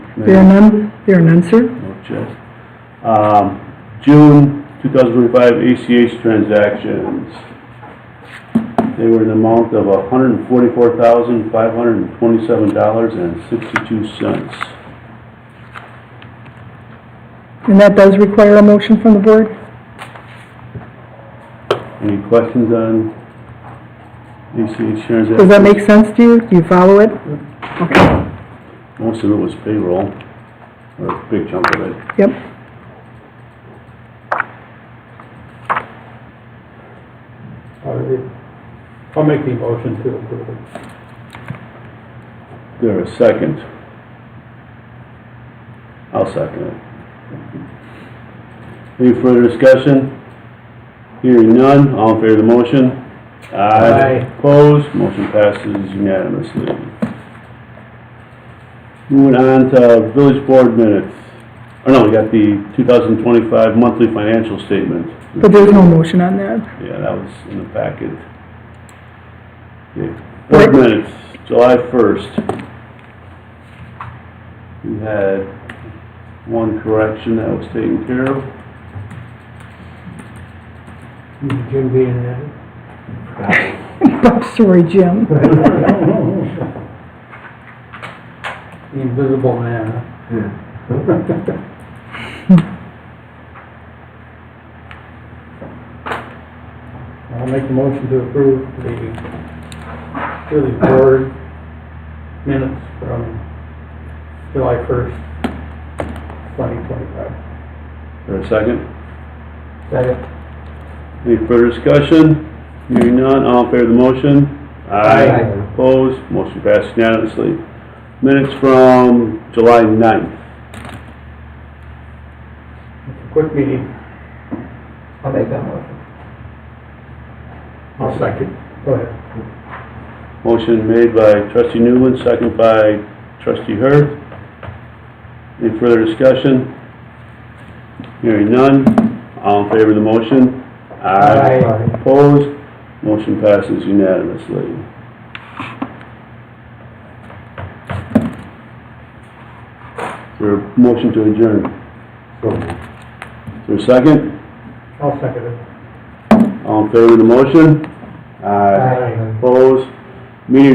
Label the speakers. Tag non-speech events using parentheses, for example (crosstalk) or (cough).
Speaker 1: There are none, there are none, sir.
Speaker 2: No checks. Um, June 2025 ACH transactions. They were in the amount of $144,527.62.
Speaker 1: And that does require a motion from the board?
Speaker 2: Any questions on ACH transactions?
Speaker 1: Does that make sense to you? Do you follow it? Okay,
Speaker 2: Most of it was payroll, or a big chunk of it.
Speaker 1: yep.
Speaker 3: I'll make the motion to approve it.
Speaker 2: There a second? I'll second it. Any further discussion? Hearing none, all in favor of the motion?
Speaker 3: Aye.
Speaker 2: Opposed, motion passes unanimously. Moving on to village board minutes. Oh no, we got the 2025 monthly financial statement.
Speaker 1: But there's no motion on that. (laughs)
Speaker 2: Yeah, that was in the packet. Okay, Board minutes, July 1st. We had one correction that was taken care of.
Speaker 3: Jim being there.
Speaker 1: I'm sorry, Jim.
Speaker 3: (laughs) The invisible man. huh? I'll make the motion to approve the, really board minutes from July first, twenty twenty-five.
Speaker 2: For a second,
Speaker 3: Second.
Speaker 2: any further discussion? Hearing none, all in favor of the motion?
Speaker 3: Aye.
Speaker 2: Opposed, motion passed unanimously. Minutes from July 9th.
Speaker 3: Quick meeting.
Speaker 4: I'll make that motion.
Speaker 3: I'll second. Go ahead.
Speaker 2: Motion made by trustee Newland, second by trustee Hurd. Any further discussion? Hearing none, all in favor of the motion?
Speaker 3: Aye.
Speaker 2: Opposed? Motion passes unanimously. Your motion to adjourn. Is there a second?
Speaker 3: I'll second it.
Speaker 2: All in favor of the motion? Opposed? Meeting